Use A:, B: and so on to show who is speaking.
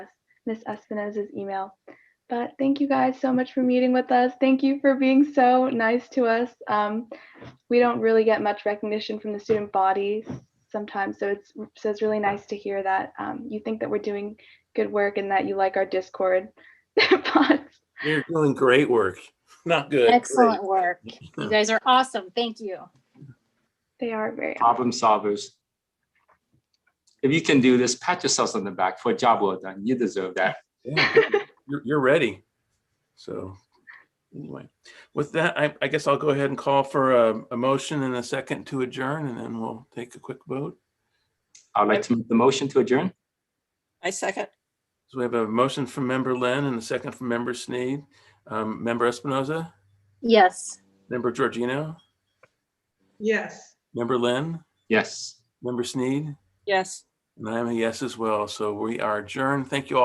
A: Miss Espinoza's email. But thank you guys so much for meeting with us. Thank you for being so nice to us. Um, we don't really get much recognition from the student body sometimes, so it's so it's really nice to hear that um, you think that we're doing good work and that you like our Discord bots.
B: You're doing great work. Not good. great.
C: Excellent work. You guys are awesome. Thank you.
A: They are very
D: problem solvers. If you can do this, pat yourselves on the back for a job well done. You deserve that.
B: Yeah, You're, you're ready. So anyway, with that, I, I guess I'll go ahead and call for a, a motion and a second to adjourn and then we'll take a quick vote.
D: I'd like to make the motion to adjourn.
E: I second.
B: So we have a motion from member Lynn and a second from member Sneed. Um, member Espinoza,
C: Yes.
B: member Georgino,
F: Yes.
B: member Lynn,
D: Yes.
B: member Sneed,
E: Yes.
B: and I'm a yes as well. So we are adjourned. Thank you all.